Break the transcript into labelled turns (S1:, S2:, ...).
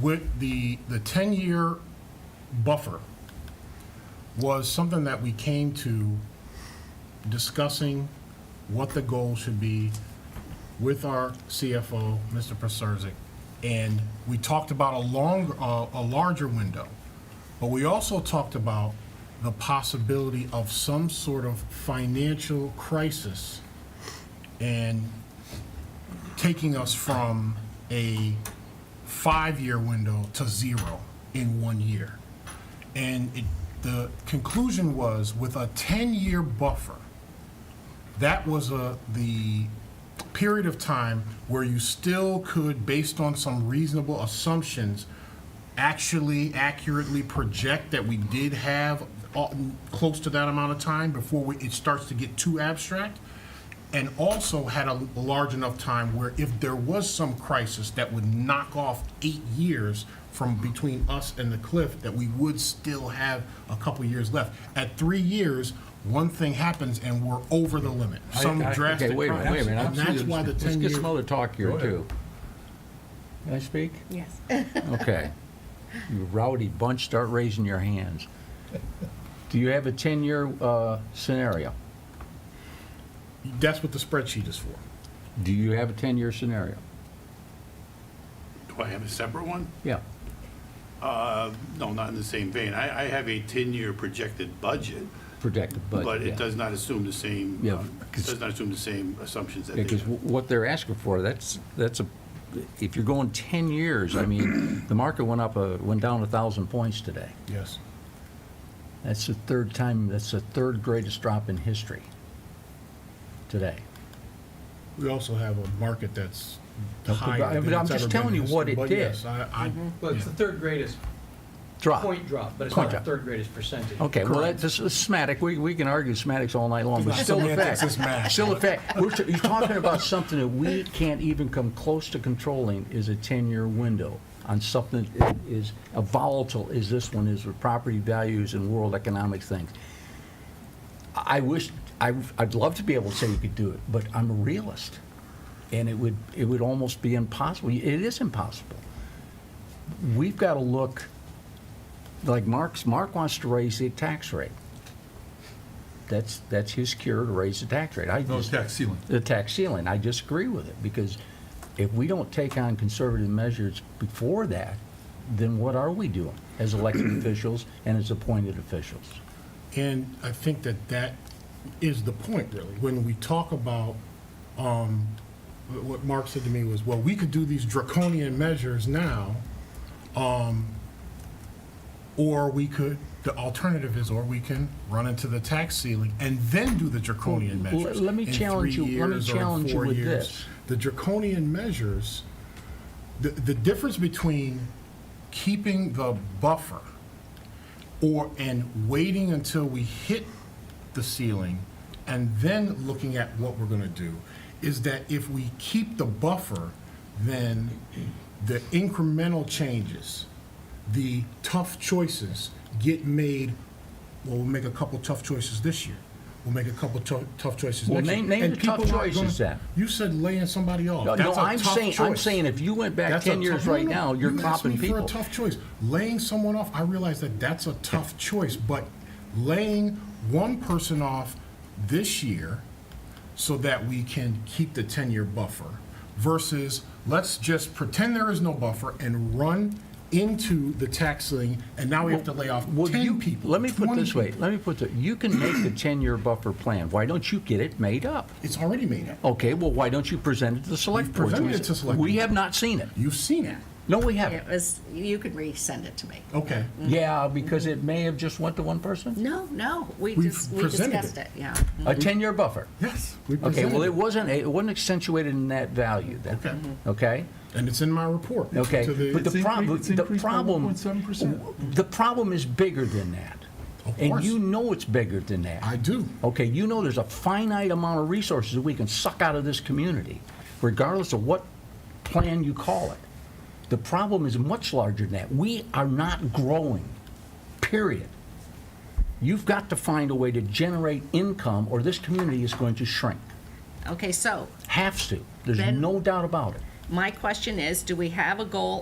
S1: with the, the 10-year buffer was something that we came to discussing what the goal should be with our CFO, Mr. Preserzic, and we talked about a long, uh, a larger window. But we also talked about the possibility of some sort of financial crisis and taking us from a five-year window to zero in one year. And it, the conclusion was with a 10-year buffer, that was a, the period of time where you still could, based on some reasonable assumptions, actually accurately project that we did have uh, close to that amount of time before we, it starts to get too abstract. And also had a large enough time where if there was some crisis that would knock off eight years from between us and the cliff, that we would still have a couple years left. At three years, one thing happens and we're over the limit, some
S2: I- okay,
S1: drastic.
S2: wait a minute,
S1: crisis.
S2: wait a minute.
S1: And that's why the
S2: Let's
S1: ten
S2: get
S1: years.
S2: some other talk here,
S1: Go ahead.
S2: too. Can I speak?
S3: Yes.
S2: Okay. You rowdy bunch, start raising your hands. Do you have a 10-year uh, scenario?
S1: That's what the spreadsheet is for.
S2: Do you have a 10-year scenario?
S4: Do I have a separate one?
S2: Yeah.
S4: Uh, No, not in the same vein. I, I have a 10-year projected budget,
S2: Projected budget.
S4: but
S2: yeah.
S4: it does not assume the same,
S2: Yeah,
S4: um,
S2: 'cause-
S4: does not assume the same assumptions that they
S2: Because
S4: have.
S2: what they're asking for, that's, that's a, if you're going 10 years, I mean, the market went up, a- went down 1,000 points today.
S1: Yes.
S2: That's the third time, that's the third greatest drop in history today.
S1: We also have a market that's
S2: Okay, but I-
S1: higher
S2: but
S1: than
S2: I'm
S1: it's ever
S2: just
S1: been
S2: telling
S1: in
S2: you
S1: this-
S2: what it
S1: but
S2: did.
S1: yes, I, I,
S5: Well, it's the third greatest
S2: Drop.
S5: point drop, but it's
S2: Point
S5: not the
S2: drop.
S5: third greatest percentage.
S2: Okay, well, that's that's semantic, we, we can argue semantics all night long, but
S1: It's
S2: still a
S1: semantics,
S2: fact.
S1: it's math.
S2: Still a fact. We're, t- you're talking about something that we can't even come close to controlling is a 10-year window on something that is as volatile as this one is with property values and world economic things. I wish, I, I'd love to be able to say you could do it, but I'm a realist. And it would, it would almost be impossible. It is impossible. We've got to look, like Mark's, Mark wants to raise the tax rate. That's, that's his cure to raise the tax rate. I
S6: No,
S2: just,
S6: tax ceiling.
S2: the tax ceiling, I disagree with it because if we don't take on conservative measures before that, then what are we doing as elected officials and as appointed officials?
S1: and I think that that is the point, really. When we talk about, um, wh- what Mark said to me was, well, we could do these draconian measures now, um, or we could, the alternative is, or we can run into the tax ceiling and then do the draconian
S2: Well, l-
S1: measures.
S2: let me
S1: in
S2: challenge
S1: three
S2: you- let me
S1: years or in
S2: challenge you
S1: four
S2: with
S1: years.
S2: this.
S1: The draconian measures, the, the difference between keeping the buffer or, and waiting until we hit the ceiling and then looking at what we're gonna do, is that if we keep the buffer, then the incremental changes, the tough choices get made, well, we'll make a couple tough choices this year. We'll make a couple tou- tough choices
S2: Well,
S1: next year.
S2: name- name
S1: And
S2: the tough
S1: people aren't gonna-
S2: choices then.
S1: You said laying somebody off.
S2: No,
S1: Oh, That's a
S2: I'm
S1: tough
S2: saying, I'm
S1: choice.
S2: saying if you went back
S1: That's a
S2: 10 years
S1: tough-
S2: right
S1: no, no,
S2: now, you're
S1: you asked
S2: clopping
S1: me for a
S2: people.
S1: tough choice. Laying someone off, I realize that that's a tough choice, but laying one person off this year so that we can keep the 10-year buffer versus let's just pretend there is no buffer and run into the tax ceiling, and now we have to lay off
S2: Well,
S1: 10
S2: you-
S1: people.
S2: Let me put
S1: 20
S2: this way,
S1: people.
S2: let me put it, you can make the 10-year buffer plan. Why don't you get it made up?
S1: It's already made up.
S2: Okay, well, why don't you present it to the select
S1: We've
S2: board?
S1: presented it to select
S2: We
S1: board.
S2: have not seen it.
S1: You've seen it.
S2: No, we haven't.
S3: It was, you could resend it to me.
S1: Okay.
S2: Yeah, because it may have just went to one person?
S3: No, no, we
S1: We've
S3: just, we
S1: presented
S3: discussed
S1: it.
S3: it, yeah.
S2: A 10-year buffer?
S1: Yes. we
S2: Okay,
S1: presented
S2: well, it wasn't, it wasn't accentuated in that value then,
S1: Okay.
S2: okay?
S1: And it's in my report.
S2: Okay,
S1: to the-
S2: but the
S6: It's incre-
S2: problem,
S6: it's
S2: the
S6: increased by
S2: problem,
S6: 1.7%.
S2: the problem is bigger than that.
S1: Of
S2: And
S1: course.
S2: you know it's bigger than that.
S1: I do.
S2: Okay, you know there's a finite amount of resources that we can suck out of this community, regardless of what plan you call it. The problem is much larger than that. We are not growing, period. You've got to find a way to generate income, or this community is going to shrink.
S3: Okay, so
S2: Has to. There's
S3: Ben-
S2: no doubt about it.
S3: my question is, do we have a goal